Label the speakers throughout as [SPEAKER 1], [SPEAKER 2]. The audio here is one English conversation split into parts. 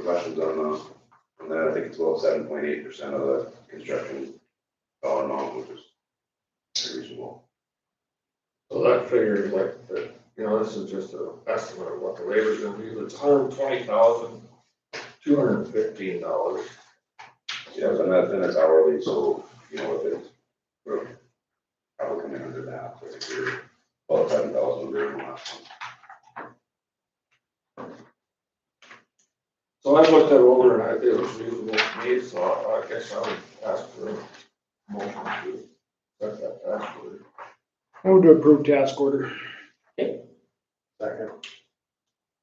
[SPEAKER 1] questions on those? And then I think it's about seven point eight percent of the construction dollar amount, which is pretty reasonable.
[SPEAKER 2] So that figure is like, the- you know, this is just an estimate of what the labor's gonna be, but it's hundred and twenty thousand, two hundred and fifteen dollars.
[SPEAKER 1] Yeah, and that's, and that's hourly, so, you know, if it's, we're probably coming under that, but if you're about seven thousand, we're in the last one.
[SPEAKER 2] So I looked that over and I think it was reasonable to me, so I I guess I would ask for a motion to set that tax order.
[SPEAKER 3] I would approve task order.
[SPEAKER 2] Second.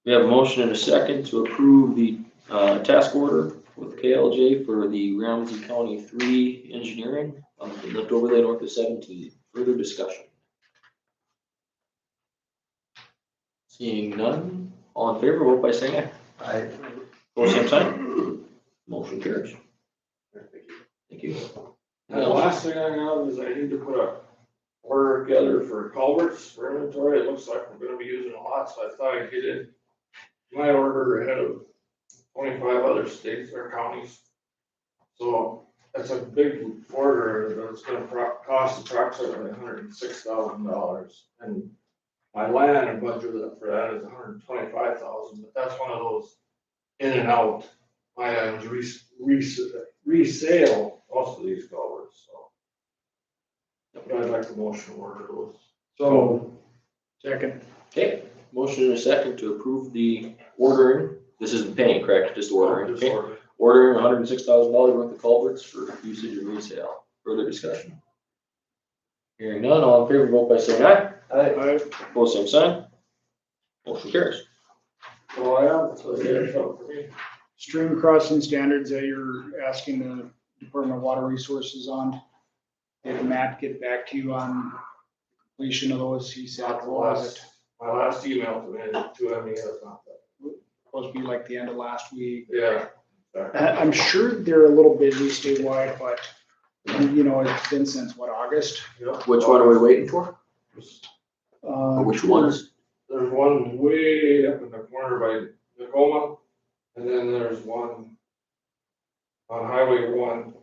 [SPEAKER 4] We have a motion and a second to approve the uh, task order with KLJ for the Ramsey County Three Engineering on the lift overlay north of seventeen. Further discussion? Seeing none, all in favor, vote by saying aye.
[SPEAKER 2] I,
[SPEAKER 4] Vote same sign. Motion carries.
[SPEAKER 1] Thank you.
[SPEAKER 4] Thank you.
[SPEAKER 2] and the last thing I have is I need to put a order together for culverts for inventory, it looks like we're gonna be using a lot, so I thought I'd get it. My order ahead of twenty-five other states or counties. So that's a big order, but it's gonna pro- cost approximately hundred and six thousand dollars. And my land and budget for that is $125,000. but that's one of those in and out items, res- res- resale most of these culverts, so. But I'd like the motion to order those.
[SPEAKER 3] So. Second.
[SPEAKER 4] Okay, motion and a second to approve the ordering. This isn't paying, correct? Just ordering.
[SPEAKER 2] Just
[SPEAKER 4] Okay.
[SPEAKER 2] order.
[SPEAKER 4] ordering hundred and six thousand dollars worth of culverts for usage and resale. Further discussion? Hearing none, all in favor, vote by saying aye.
[SPEAKER 3] Aye.
[SPEAKER 4] Opposed, same sign. Motion carries.
[SPEAKER 2] So Oh, I am, so it's up for me.
[SPEAKER 3] Stream crossing standards that you're asking the Department of Water Resources on. Did Matt get back to you on completion of those? He said, what was it?
[SPEAKER 2] My last email to him, to him, he has not.
[SPEAKER 3] Supposed to be like the end of last week.
[SPEAKER 2] Yeah.
[SPEAKER 3] I- I'm sure they're a little busy statewide, but you know, it's been since what, August?
[SPEAKER 2] Yep.
[SPEAKER 4] Which one are we waiting for?
[SPEAKER 3] Uh,
[SPEAKER 4] Or Oh, which ones?
[SPEAKER 2] There's one way up in the corner by Tacoma, and then there's one on Highway one.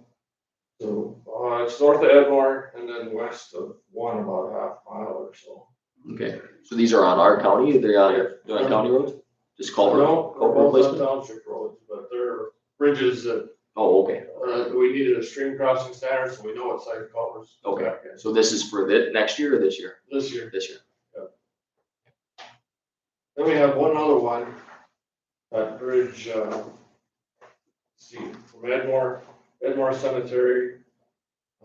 [SPEAKER 2] So, uh, it's north of Edmore and then west of one about a half mile or so.
[SPEAKER 4] Okay, so these are on our county, they're on, they're on county roads? Just culvert,
[SPEAKER 2] No, they're
[SPEAKER 4] culvert
[SPEAKER 2] both on
[SPEAKER 4] replacement?
[SPEAKER 2] Township roads, but they're bridges that
[SPEAKER 4] Oh, okay,
[SPEAKER 2] Uh, we needed a stream crossing standard, so we know what side culverts. to
[SPEAKER 4] Okay.
[SPEAKER 2] back in.
[SPEAKER 4] so this is for the, next year or this year?
[SPEAKER 2] This year.
[SPEAKER 4] This year.
[SPEAKER 2] Then we have one other one. That bridge, uh, let's see, from Edmore, Edmore Cemetery,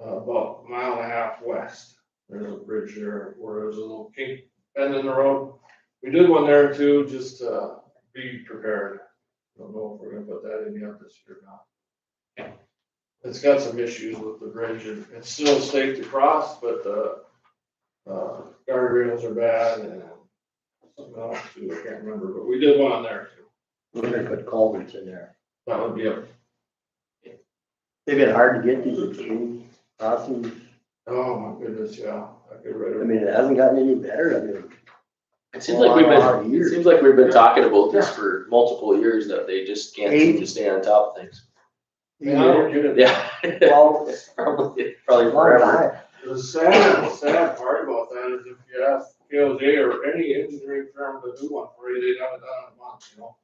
[SPEAKER 2] uh, about a mile and a half west. There's a bridge there where there's a little kink bend in the road. We did one there too, just, uh, be prepared. Don't know if we're gonna put that in yet this year or not. It's got some issues with the bridge. and It's still safe to cross, but, uh, uh, guardrails are bad and something else too, I can't remember, but we did one on there too.
[SPEAKER 5] We're gonna put culverts in there.
[SPEAKER 2] That would be a,
[SPEAKER 5] They've been hard to get these extreme crossings.
[SPEAKER 2] oh my goodness, yeah, I could
[SPEAKER 5] I
[SPEAKER 2] write it.
[SPEAKER 5] mean, it hasn't gotten any better. I mean,
[SPEAKER 4] It seems like we've
[SPEAKER 5] Wow,
[SPEAKER 4] been, it
[SPEAKER 5] years.
[SPEAKER 4] seems like we've been talking about this for multiple years that they just can't seem to stay on top of things.
[SPEAKER 2] Man, I don't get it.
[SPEAKER 4] Yeah.
[SPEAKER 5] Well,
[SPEAKER 4] Probably, probably
[SPEAKER 5] long
[SPEAKER 4] forever.
[SPEAKER 5] time.
[SPEAKER 2] The sad, sad part about that is if you ask KLJ or any engineering firm to do one for you, they'd have it done in a month, you know?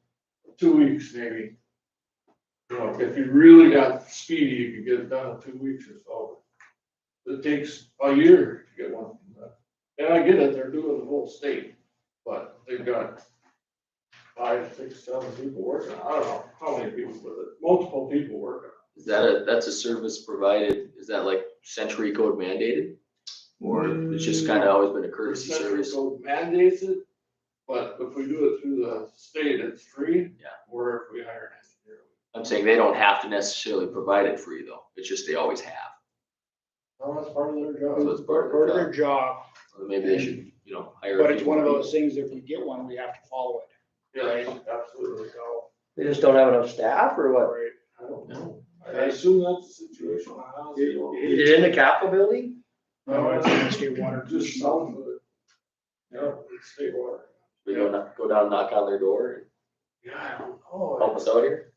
[SPEAKER 2] Two weeks maybe. You know, if you really got speedy, you could get it done in two weeks or so. It takes a year to get one. done. And I get it, they're doing the whole state, but they've got five, six, seven people working, I don't know how many people with it, multiple people working.
[SPEAKER 4] Is that a, that's a service provided, is that like century code mandated? Or it's just kind of always been a courtesy
[SPEAKER 3] Mm.
[SPEAKER 2] Central
[SPEAKER 4] service?
[SPEAKER 2] Code mandates it, but if we do it through the state, it's free.
[SPEAKER 4] Yeah.
[SPEAKER 2] Or if we hire an engineer.
[SPEAKER 4] I'm saying they don't have to necessarily provide it for you though, it's just they always have.
[SPEAKER 2] Well, that's part of their
[SPEAKER 4] So
[SPEAKER 2] job.
[SPEAKER 4] it's part
[SPEAKER 3] Part of
[SPEAKER 4] of
[SPEAKER 3] their
[SPEAKER 4] their job,
[SPEAKER 3] job,
[SPEAKER 4] Or maybe they should, you know, hire. a
[SPEAKER 3] but it's
[SPEAKER 4] few
[SPEAKER 3] one of
[SPEAKER 4] more
[SPEAKER 3] those things, if we get one, we have to follow it.
[SPEAKER 2] Yeah, absolutely.
[SPEAKER 3] So,
[SPEAKER 5] They just don't have enough staff or what?
[SPEAKER 3] right.
[SPEAKER 2] I don't
[SPEAKER 4] people.
[SPEAKER 2] know.
[SPEAKER 4] No?
[SPEAKER 2] I assume that's the situation. I honestly don't know.
[SPEAKER 5] Is it in the Capitol building?
[SPEAKER 3] No, it's gonna stay water.
[SPEAKER 2] Just south of it. Yeah, it's state water.
[SPEAKER 4] We go, knock- go down, knock on their door and
[SPEAKER 2] Yeah, I don't know.
[SPEAKER 4] Oh, help us out here?